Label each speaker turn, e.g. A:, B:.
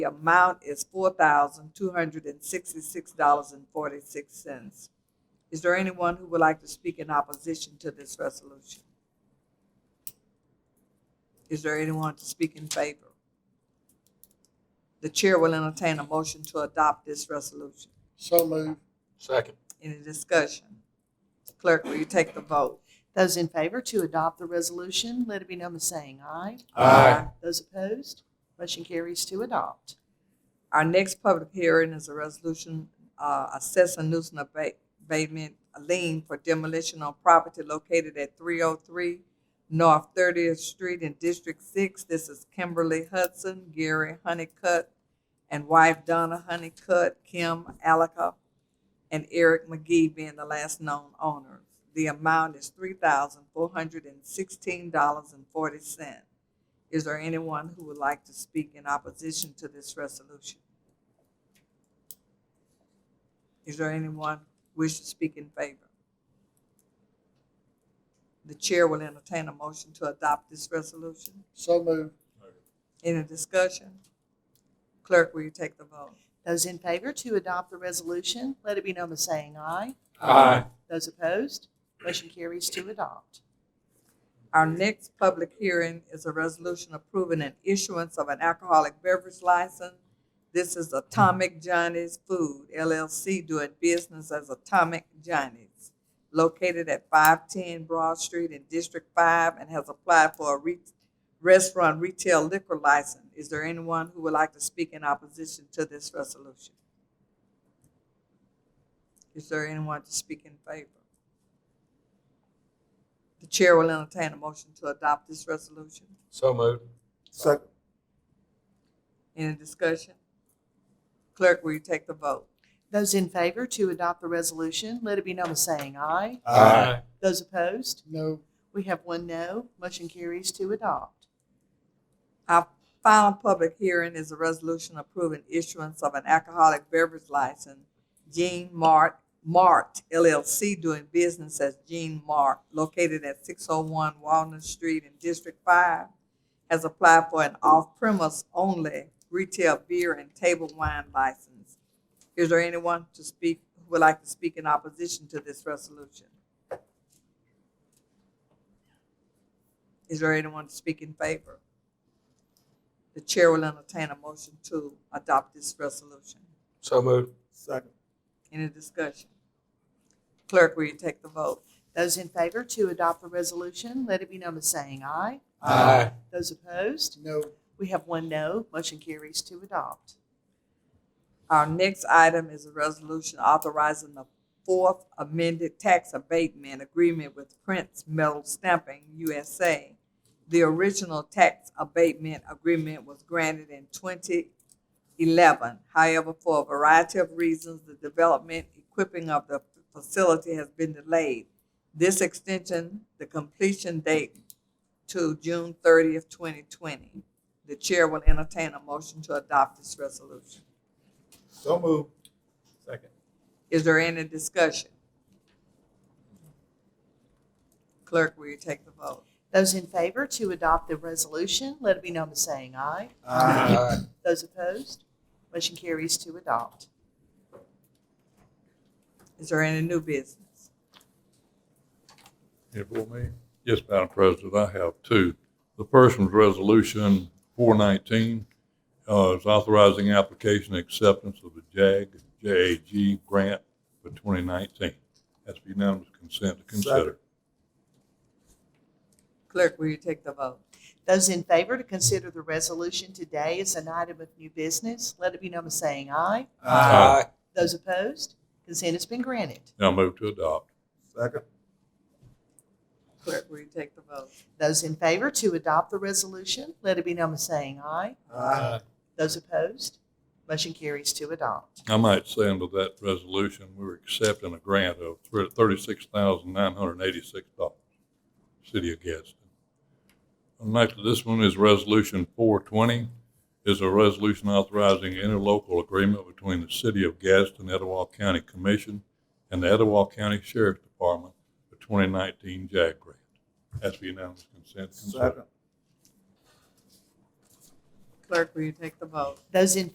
A: The amount is four thousand two hundred and sixty-six dollars and forty-six cents. Is there anyone who would like to speak in opposition to this resolution? Is there anyone to speak in favor? The chair will entertain a motion to adopt this resolution.
B: So moved.
C: Second.
A: Any discussion? Clerk, will you take the vote?
D: Those in favor to adopt the resolution, let it be known by saying aye. Those opposed, motion carries to adopt.
A: Our next public hearing is a resolution uh, assessing nuisance abate- abatement lien for demolition on property located at 303 North 30th Street in District 6. This is Kimberly Hudson, Gary Honeycutt, and wife Donna Honeycutt, Kim Alaka, and Eric McGee being the last known owners. The amount is $3,416.40. Is there anyone who would like to speak in opposition to this resolution? Is there anyone wish to speak in favor? The chair will entertain a motion to adopt this resolution.
B: So moved.
A: Any discussion? Clerk, will you take the vote?
D: Those in favor to adopt the resolution, let it be known by saying aye.
C: Aye.
D: Those opposed, motion carries to adopt.
A: Our next public hearing is a resolution approving an issuance of an alcoholic beverage license. This is Atomic Johnny's Food LLC doing business as Atomic Johnny's, located at five ten Broad Street in District Five and has applied for a re- restaurant retail liquor license. Is there anyone who would like to speak in opposition to this resolution? Is there anyone to speak in favor? The chair will entertain a motion to adopt this resolution.
C: So moved.
B: Second.
A: Any discussion? Clerk, will you take the vote?
D: Those in favor to adopt the resolution, let it be known by saying aye. Those opposed,
B: No.
D: we have one no, motion carries to adopt.
A: Our final public hearing is a resolution approving issuance of an alcoholic beverage license, Jean Mart, Mart LLC, doing business as Jean Mart, located at six oh one Walnut Street in District Five, has applied for an off-premise only retail beer and table wine license. Is there anyone to speak, who would like to speak in opposition to this resolution? Is there anyone to speak in favor? The chair will entertain a motion to adopt this resolution.
C: So moved.
B: Second.
A: Any discussion? Clerk, will you take the vote?
D: Those in favor to adopt the resolution, let it be known by saying aye. Those opposed,
B: No.
D: we have one no, motion carries to adopt.
A: Our next item is a resolution authorizing the fourth amended tax abatement agreement with Prince Metal Stamping USA. The original tax abatement agreement was granted in twenty eleven. However, for a variety of reasons, the development, equipping of the facility has been delayed. This extension, the completion date to June thirtieth, twenty twenty. The chair will entertain a motion to adopt this resolution.
B: So moved.
C: Second.
A: Is there any discussion? Clerk, will you take the vote?
D: Those in favor to adopt the resolution, let it be known by saying aye.
C: Aye.
D: Those opposed, motion carries to adopt.
A: Is there any new business?
E: It will me? Yes, Madam President, I have two. The first one's Resolution 419, uh, is authorizing application and acceptance of the JAG, JAG grant for 2019. That's unanimous consent to consider.
A: Clerk, will you take the vote?
D: Those in favor to consider the resolution today as an item of new business, let it be known by saying aye.
C: Aye.
D: Those opposed, consent has been granted.
E: Now move to adopt.
B: Second.
A: Clerk, will you take the vote?
D: Those in favor to adopt the resolution, let it be known by saying aye.
B: Aye.
D: Those opposed, motion carries to adopt.
E: I might say under that resolution, we're accepting a grant of $36,986, City of Gadsden. And Next, this one is Resolution 420, is a resolution authorizing interlocal agreement between the City of Gadsden, Etowah County Commission, and the Etowah County Sheriff's Department for 2019 JAG grant. That's for unanimous consent. to consider.
B: Second.
A: Clerk, will you take the vote?
D: Those in